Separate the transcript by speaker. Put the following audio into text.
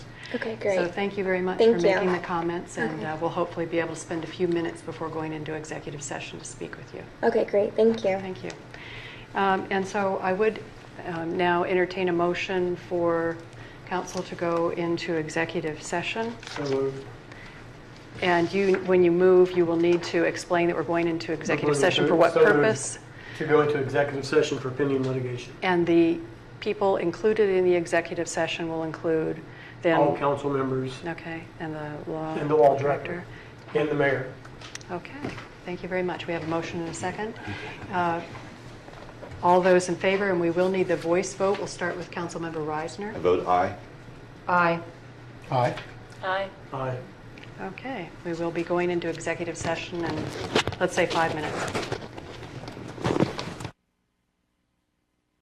Speaker 1: Okay,
Speaker 2: So
Speaker 1: great.
Speaker 2: thank you very much for
Speaker 1: Thank you.
Speaker 2: making the comments, and
Speaker 1: Okay.
Speaker 2: uh, we'll hopefully be able to spend a few minutes before going into executive session to speak with you.
Speaker 1: Okay, great. Thank you.
Speaker 2: Thank you. Um, And so I would um, now entertain a motion for council to go into executive session.
Speaker 3: So moved.
Speaker 2: And you, when you move, you will need to explain that we're going into executive session for what
Speaker 3: So moved.
Speaker 2: purpose,
Speaker 3: To go into executive session for pending litigation.
Speaker 2: and the people included in the executive session will include then...
Speaker 3: All council members
Speaker 2: Okay, and the law...
Speaker 3: And the law director. and the mayor.
Speaker 2: Okay, thank you very much. We have a motion and a second. Uh, All those in favor, and we will need the voice vote. We'll start with Councilmember
Speaker 4: I
Speaker 2: Reisner.
Speaker 4: vote aye.
Speaker 2: Aye.
Speaker 3: Aye.
Speaker 5: Aye.
Speaker 3: Aye.
Speaker 2: Okay, we will be going into executive session in, let's say, five minutes.